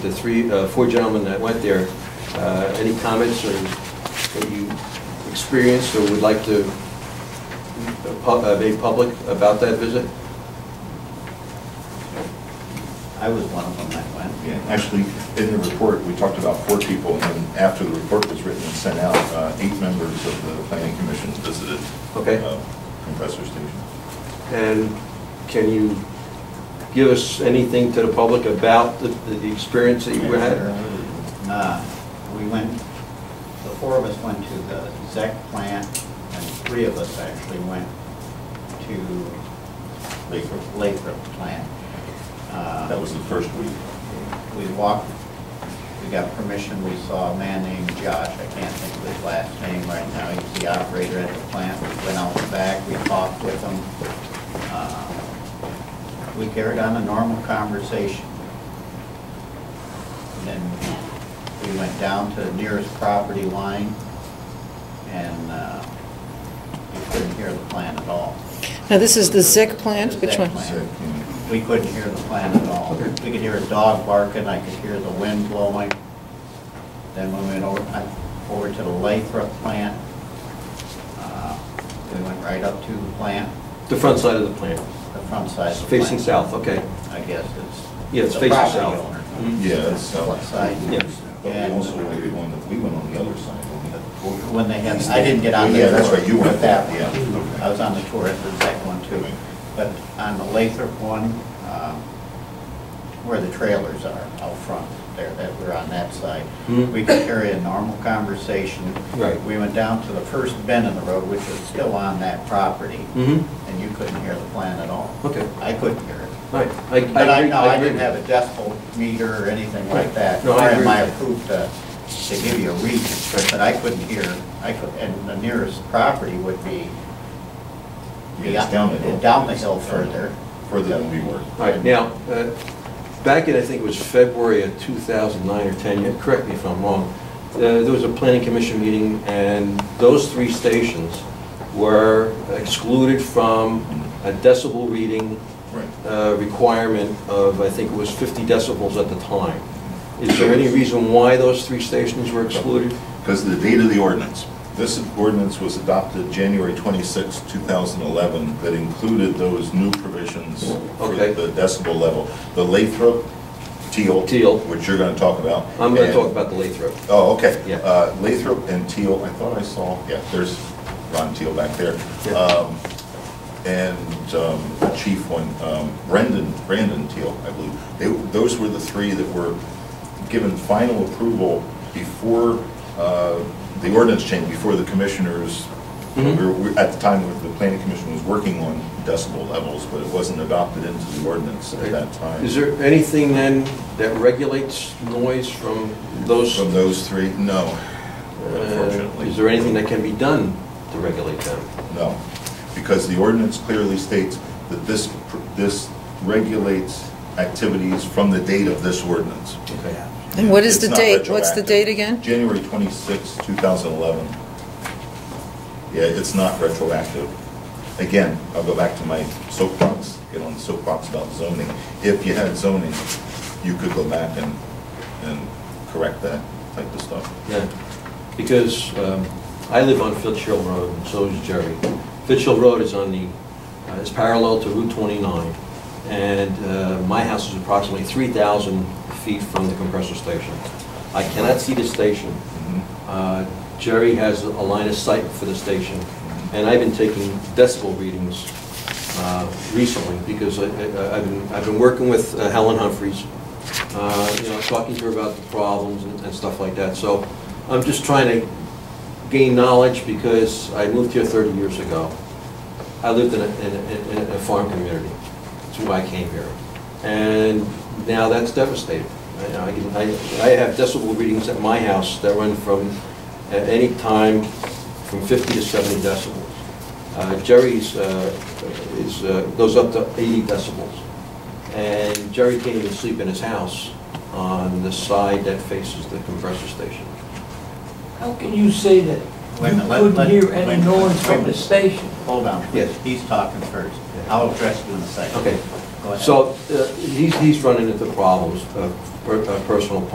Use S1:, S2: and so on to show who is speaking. S1: the three, uh, four gentlemen that went there, uh, any comments or that you experienced or would like to uh, pu- uh, make public about that visit?
S2: I was one of them that went.
S3: Yeah, Actually, in the report, we talked about four people, and then after the report was written and sent out, uh, eight members of the planning commission visited.
S1: Okay.
S3: uh, Compressor station.
S1: And can you give us anything to the public about the, the experience that you had?
S2: Uh, We went, the four of us went to the ZEC plant, and three of us actually went to
S3: Lathrop.
S2: Lathrop plant. Uh,
S3: That was the first week.
S2: We walked, we got permission, we saw a man named Josh, I can't think of his last name right now, he's the operator at the plant. We went out the back, we talked with him. Uh, We carried on a normal conversation. And Then we went down to the nearest property line, and uh, we couldn't hear the plant at all.
S4: Now, this is the ZIC plant,
S2: The
S4: which
S2: ZIC
S4: one?
S2: plant.
S3: So, yeah.
S2: We couldn't hear the plant at all. We could hear a dog barking, I could hear the wind blowing. Then we went over, I- over to the Lathrop plant. Uh, We went right up to the plant,
S1: The front side of the plant,
S2: the front side of the plant.
S1: facing south, okay.
S2: I guess it's.
S1: Yeah, it's
S2: the
S1: facing
S2: property
S1: south.
S2: owner.
S1: Mhm.
S3: Yeah, it's
S2: The left
S3: south.
S2: side.
S1: Yeah.
S3: But we also went to one that we went on the other side. when we had the tour.
S2: When they had, I didn't get on
S3: Yeah,
S2: there.
S3: that's right, you went
S2: That
S3: that,
S2: one.
S3: yeah. okay.
S2: I was on the tour at the second one too. But on the Lathrop one, um, where the trailers are out front there, that we're on that side,
S1: Mhm.
S2: we could carry a normal conversation.
S1: Right.
S2: We went down to the first bend in the road, which is still on that property,
S1: Mm-hmm,
S2: and you couldn't hear the plan at all.
S1: Okay.
S2: I couldn't hear it.
S1: right.
S2: But I, no, I
S1: agree.
S2: didn't have a decibel meter or anything like that.
S1: No, I agree
S2: Or am I
S1: with
S2: approved to, to give you a reading, but I couldn't hear, I could, and the nearest property would be.
S3: Yeah, it's down the hill.
S2: Down the hill further.
S3: Further than we were.
S1: All right, now, uh, back in, I think it was February of 2009 or 10, yeah, correct me if I'm wrong, uh, there was a planning commission meeting, and those three stations were excluded from a decibel reading
S3: Right.
S1: uh, requirement of, I think it was 50 decibels at the time. Is there any reason why those three stations were excluded?
S3: Because of the date of the ordinance. This ordinance was adopted January 26, 2011, that included those new provisions for
S1: Okay.
S3: the decibel level. The Lathrop, Teal.
S1: Teal.
S3: Which you're going to talk about.
S1: I'm going to
S3: and-
S1: talk about the Lathrop.
S3: Oh, okay.
S1: Yeah.
S3: Uh, Lathrop and Teal, I thought I saw, yeah, there's Ron Teal back there.
S1: Yeah.
S3: Um, And um, the chief one, um, Brendan, Brandon Teal, I believe. They, those were the three that were given final approval before uh, the ordinance change, before the commissioners,
S1: Mhm.
S3: we were- we- at the time, the planning commission was working on decibel levels, but it wasn't adopted into the ordinance at that time.
S1: Is there anything then that regulates noise from those
S3: From those three, no,
S1: Uh,
S3: unfortunately.
S1: Is there anything that can be done to regulate them?
S3: No, because the ordinance clearly states that this, pr- this regulates activities from the date of this ordinance.
S1: Okay.
S4: And what is
S3: It's
S4: the
S3: not
S4: date? What's the
S3: retroactive.
S4: date again?
S3: January 26, 2011. Yeah, it's not retroactive. Again, I'll go back to my soapbox, get on the soapbox about zoning. If you had zoning, you could go back and, and correct that type of stuff.
S1: Yeah, because um, I live on Fitchill Road, and so does Jerry. Fitchill Road is on the, uh, is parallel to Route 29, and uh, my house is approximately 3,000 feet from the compressor station. I cannot see the station.
S3: Mhm.
S1: Uh, Jerry has a line of sight for the station,
S3: Mm-hmm.
S1: and I've been taking decibel readings uh, recently, because I- I- I've been, I've been working with uh, Helen Humphries, uh, you know, talking to her about the problems and and stuff like that. So I'm just trying to gain knowledge, because I moved here 30 years ago. I lived in a, in a- in a- in a farm community. That's why I came here. And now that's devastated. I, I can- I I have decibel readings at my house that run from, at any time, from 50 to 70 decibels. Uh, Jerry's uh, is, uh, goes up to 80 decibels. And Jerry can't even sleep in his house on the side that faces the compressor station.
S5: How can you say that
S2: Wait a
S5: you
S2: minute, let-
S5: couldn't
S2: let-
S5: hear
S2: wait a
S5: any
S2: minute,
S5: noise
S2: wait a
S5: from the
S2: minute.
S5: station?
S2: Hold on.
S1: Yes.
S2: He's talking first.
S1: Yeah.
S2: I'll address you in a second.
S1: Okay.
S2: Go ahead.
S1: So uh, he's, he's running into problems, uh, per- uh, personal